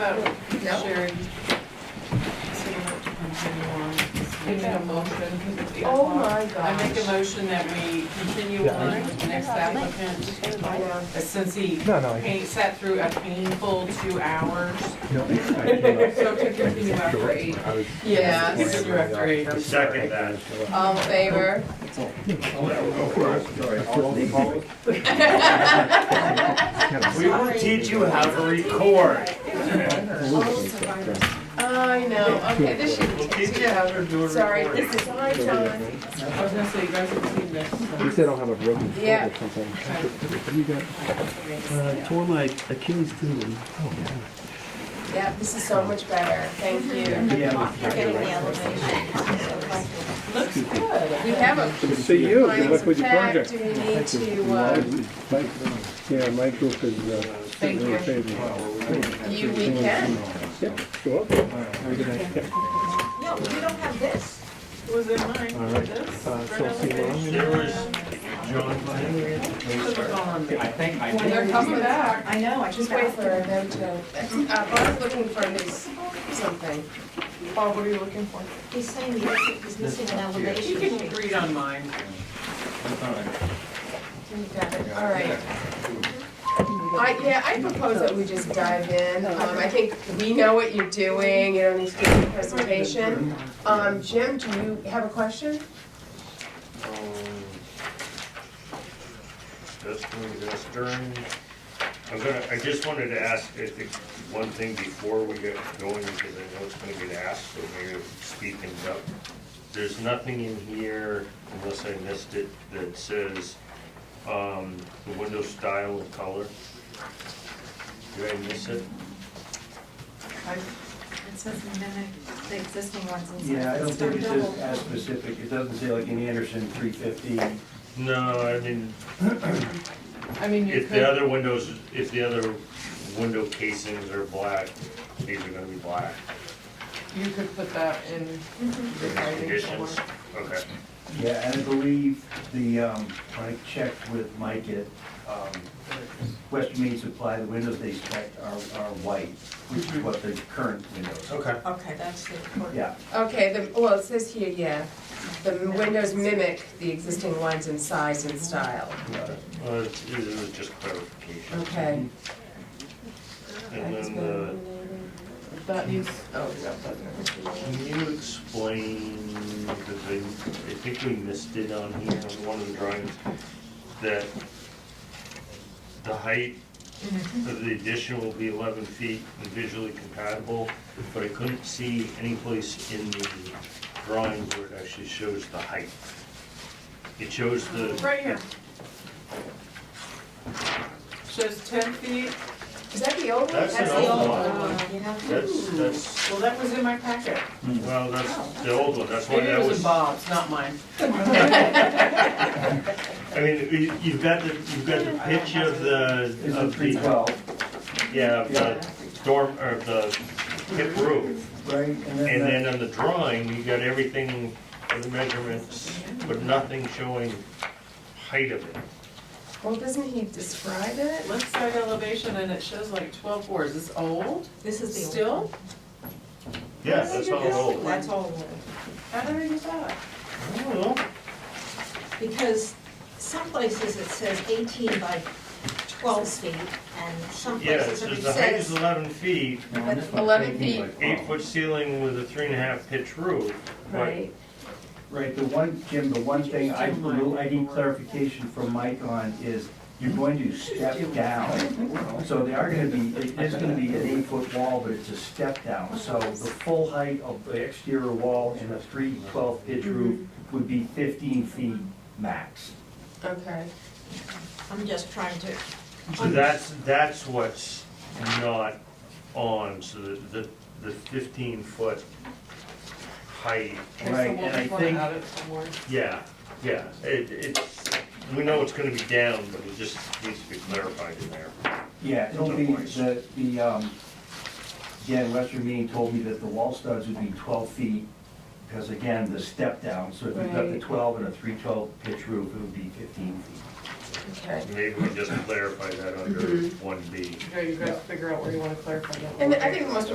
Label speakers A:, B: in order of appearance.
A: about
B: Yep.
A: sharing? So we have to continue on.
C: Make a motion,
A: because it's.
B: Oh my
A: I
B: gosh.
A: make a motion that we continue
D: Yeah.
A: on with the next applicant, uh,
B: Yeah.
A: since he
D: No, no, I-
A: pa- sat through a painful two hours.
D: No, I came
A: So to continue
D: up
A: after
D: short.
A: eight.
D: I was-
B: Yes.
A: Continue after eight.
D: I'm sorry.
E: Second that.
B: All in favor?
E: We will teach you how to record.
B: I know, okay, this
E: We'll
B: should,
E: teach you how to do a
B: sorry,
E: recording.
B: this is high time.
A: I was gonna say, you guys have seen this.
D: At least I don't have a broken foot
B: Yeah.
D: or something.
F: I Uh, tore my Achilles tendon.
B: Yeah, this is so much better, thank you. Looks good. We have a
G: Good to see you, good
B: compliance
G: luck with your
B: pack,
G: project.
B: do we need to, uh,
G: Mike- Yeah, my group is, uh, very favorable.
B: you, we can?
G: Yep, sure.
B: No, you don't have this.
A: Was it mine?
D: All right.
A: This?
D: Uh, so I'll see you around.
A: Right
E: There was
A: on
E: John Lang.
A: the page. Should've gone.
E: I think, I
A: When they're coming back.
B: I know, I just wait for them to, uh, Bob's looking for this, something.
A: Bob, what are you looking for?
H: He's saying he's he's missing an
A: You
H: elevation
A: can
H: sheet.
A: read on mine.
B: You got it, all right.
H: Mm-hmm.
B: I, yeah, I propose that we just dive in. Um, I think we know what you're doing, you don't need to do the presentation. Um, Jim, do you have a question?
E: This one, this during, I'm gonna, I just wanted to ask, I think, one thing before we get going, because I know it's gonna get asked, so maybe I'll speed things up. There's nothing in here, unless I missed it, that says, um, the window style and color. Did I miss it?
H: It says mimic the existing ones inside.
I: Yeah, I don't
H: It's
I: think it's
H: not
I: just
H: double.
I: as specific, it doesn't say like in Anderson three fifty.
E: No, I mean,
A: I mean, you
E: if the
A: could,
E: other windows, if the other window casings are black, these are gonna be black.
A: you could put that in the writing somewhere.
E: Conditions, okay.
I: Yeah, and I believe the, um, when I checked with Mike at, um, Western Main Supply, the windows they checked are, are white, which is what the current windows.
E: Okay.
H: Okay, that's the important.
I: Yeah,
B: Okay, the, well, it says here, yeah, the windows mimic the existing ones in size and style.
I: yeah.
E: Uh, it's- it was just clarification.
B: Okay.
E: And then, uh,
A: That needs, oh, yeah, that there.
E: can you explain, because I, I think we missed it on here on one of the drawings, that the height of the addition will be eleven feet and visually compatible, but I couldn't see any place in the drawing where it actually shows the height. It shows the,
A: Right here. Shows ten feet.
B: Is that the old one?
E: That's
H: That's
E: an
H: the
E: old
H: old
E: one.
H: one, you know?
E: that's, that's,
A: Well, that was in my packet.
E: well, that's the old one, that's why
A: Maybe
E: that
A: it was in Bob's, not mine.
E: I mean, you- you've got the, you've got the pitch of the,
I: It's a
E: of
I: three
E: the,
I: twelve,
E: yeah, of the dorm, or the hip roof.
I: right? And
E: And
I: then,
E: then on the drawing, you got everything, the measurements, but nothing showing height of it.
B: Well, doesn't he describe it?
A: Left side elevation and it shows like twelve fours. Is this old?
H: This is the old.
A: Still?
E: Yeah, that's all old.
H: That's old.
A: How did I do that?
E: I don't know.
H: Because some places it says eighteen by twelve feet, and some
E: Yeah, it
H: places it
E: says the height is
H: says.
E: eleven feet,
I: No, on this one,
B: 11
I: 18 by
B: feet.
I: 12.
E: eight foot ceiling with a three and a half pitch roof. but-
I: Right, the one, Jim, the one thing I, little- I need clarification from Mike on is, you're going to step down. So they are gonna be, it is gonna be an eight-foot wall, but it's a step down. So the full height of the exterior wall in a three twelve pitch roof would be fifteen feet max.
B: Okay.
H: I'm just trying to,
E: So that's, that's what's not on, so the, the- the fifteen foot height,
A: Okay, so
I: Right,
A: we'll
I: and I
A: just wanna
I: think-
A: add it somewhere.
E: yeah, yeah, it, it's, we know it's gonna be down, but it just needs to be clarified in there.
I: Yeah, it'll be, the, the, um, again, Western Meeting told me that the wall studs would be twelve feet, because again, the step down, so if you've got the
B: Right.
I: twelve and a three twelve pitch roof, it would be fifteen feet.
B: Okay.
E: Maybe we just clarify that under one B.
A: Joe, you guys figure out where you wanna clarify that.
B: And I think the most